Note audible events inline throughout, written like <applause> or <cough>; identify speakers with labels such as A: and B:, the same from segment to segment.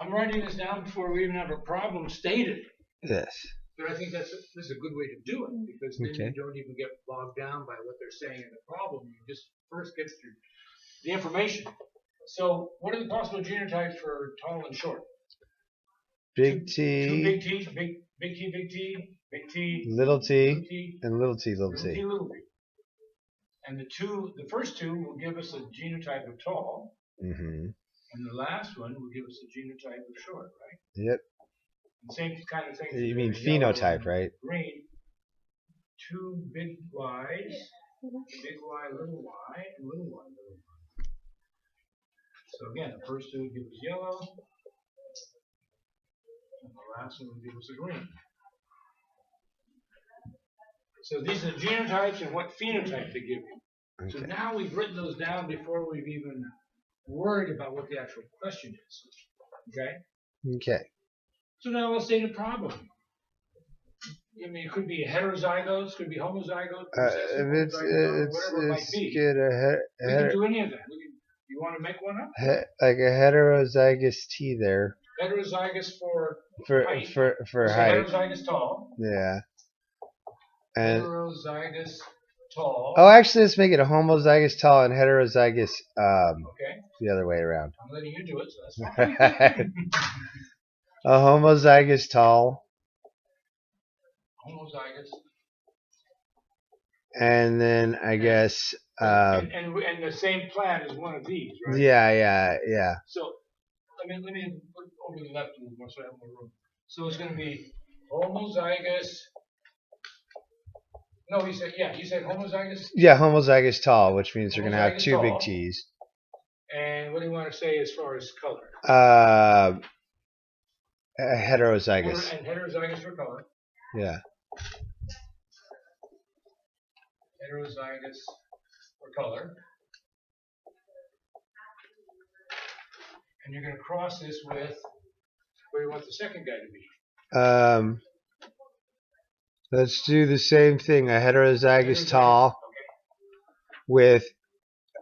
A: I'm writing this down before we even have a problem stated.
B: Yes.
A: But I think that's, this is a good way to do it, because then
B: Okay.
A: you don't even get bogged down by what they're saying in the problem, you just first get through the information. So what are the possible genotypes for tall and short?
B: Big
A: Two big T,
B: T,
A: big, big T, big T, big T,
B: little
A: little
B: t,
A: T,
B: and little t, little
A: little T,
B: t.
A: little T. And the two, the first two will give us a genotype of tall,
B: Mm-hmm.
A: and the last one will give us a genotype of short, right?
B: Yep.
A: And same kind of thing.
B: You mean
A: for the yellow
B: phenotype,
A: and
B: right?
A: Green. Two big Ys, big Y, little y, and little y, little y. So again, the first two give us yellow, and the last one will give us a green. So these are the genotypes and what phenotype they give you. So
B: Okay.
A: now we've written those down before we've even worried about what the actual question is. Okay?
B: Okay.
A: So now let's state a problem. I mean, it could be heterozygous, could be homozygous,
B: Uh,
A: recessive,
B: if it's uh,
A: homozygous,
B: it's
A: whatever it might
B: it's
A: be.
B: good a he-
A: We can
B: heter-
A: do any of that. We can, you want to make one up?
B: he- like a heterozygous T there
A: Heterozygous for
B: for
A: Height.
B: for for
A: so
B: height.
A: heterozygous tall.
B: Yeah. And
A: heterozygous tall.
B: oh, actually, let's make it a homozygous tall and heterozygous um
A: Okay,
B: the other
A: <laughs>
B: way around. <laughs>
A: I'm letting you do it, so that's fine.
B: a homozygous tall
A: homozygous.
B: and then I guess uh
A: and, and, and the same plan is one of these, right?
B: yeah yeah yeah
A: So, I mean, let me put over the left a little more so I have more room. So it's going to be homozygous. No, he said, yeah, he said homozygous.
B: yeah homozygous tall, which means you're gonna have
A: Homozygous
B: two big
A: tall.
B: T's.
A: And what do you want to say as far as color?
B: Uh, a- heterozygous.
A: And heterozygous for color.
B: Yeah.
A: heterozygous for color. And you're going to cross this with where you want the second guy to be.
B: Um, let's do the same thing. A heterozygous
A: Heterozygous,
B: tall
A: Okay.
B: with,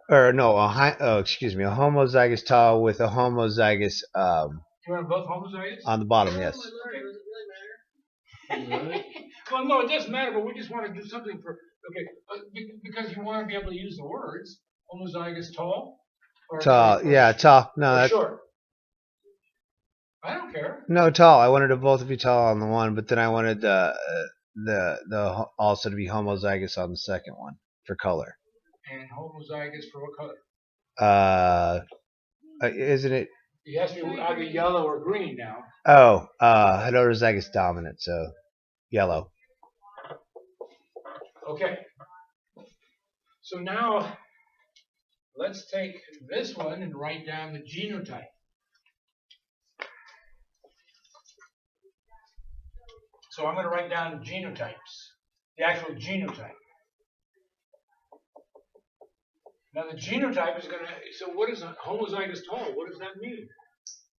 B: or no, a hi- oh, excuse me, a homozygous tall with a homozygous um
A: You want both homozygous?
B: on the bottom. Yes.
C: Oh my lord, does it really matter?
A: <laughs> well, no, it doesn't matter, but we just want to do something for, okay, uh, be- because you want to be able to use the words homozygous tall or
B: Tall.
A: or-
B: Yeah, tall. No,
A: or
B: that's
A: short. I don't care.
B: no tall. I wanted to both be tall on the one, but then I wanted the uh, the the ho- also to be homozygous on the second one for color.
A: And homozygous for what color?
B: Uh, uh, isn't it?
A: It has to be either yellow or green now.
B: Oh, uh, heterozygous dominant. So yellow.
A: Okay. So now, let's take this one and write down the genotype. So I'm going to write down genotypes, the actual genotype. Now the genotype is going to, so what is a homozygous tall? What does that mean?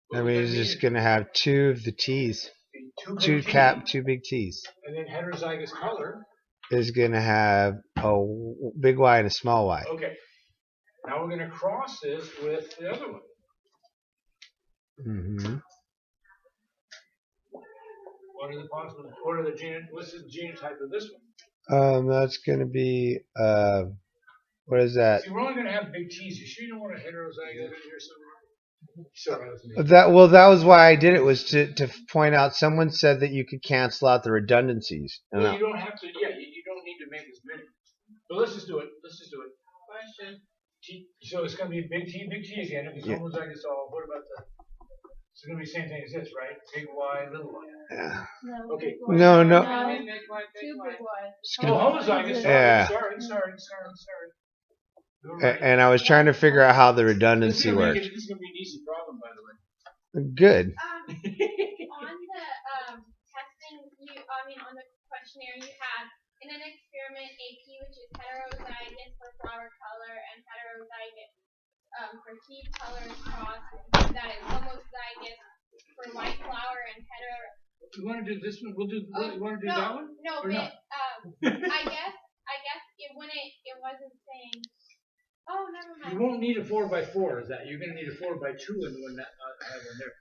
A: What
B: That
A: does
B: means it's just gonna have two of the T's,
A: mean?
B: two
A: big T
B: cap, two big T's.
A: And then heterozygous color.
B: Is gonna have a w- big Y and a small Y.
A: Okay. Now we're going to cross this with the other one.
B: hmm
A: What are the possible? What are the gen? What's the genotype of this one?
B: Um, that's gonna be uh, what is that?
A: See, we're only going to have big T's. You sure you don't want a heterozygous in here somewhere? Sorry, that was me.
B: That well, that was why I did it was to to point out. Someone said that you could cancel out the redundancies. And
A: Well,
B: I-
A: you don't have to. Yeah, you, you don't need to make as many. But let's just do it. Let's just do it. Question. T, so it's going to be big T, big T again. If it's
B: Yeah.
A: homozygous all, what about the? It's going to be the same thing as this, right? Big Y, little y.
B: yeah.
C: No.
A: Okay.
C: big one.
B: No, no.
D: Uh,
C: No, Two
D: Two
C: big ones.
B: It's
A: Oh,
B: gonna-
A: homozygous. Sorry,
B: Yeah. Uh,
A: sorry, sorry, sorry, sorry. You're
B: a-
A: right.
B: And I was trying to figure out how the
A: This is
B: redundancy
A: gonna make
B: worked.
A: it- This is going to be an easy problem, by the way.
B: Good.
A: <laughs>
D: Um, on the um, testing, you, I mean, on the questionnaire, you had in an experiment AP, which is heterozygous for flower color and heterozygous um, for tea color cross, that is homozygous for white flower and hetero.
A: You want to do this one? We'll do.
D: Oh,
A: you want to do
D: no,
A: that one?
D: no,
A: or
D: but
A: not?
D: um, I guess, I guess it wouldn't, it wasn't saying. Oh, never mind.
A: You won't need a four by four. Is that you're going to need a four by two in the one that uh, I have in there.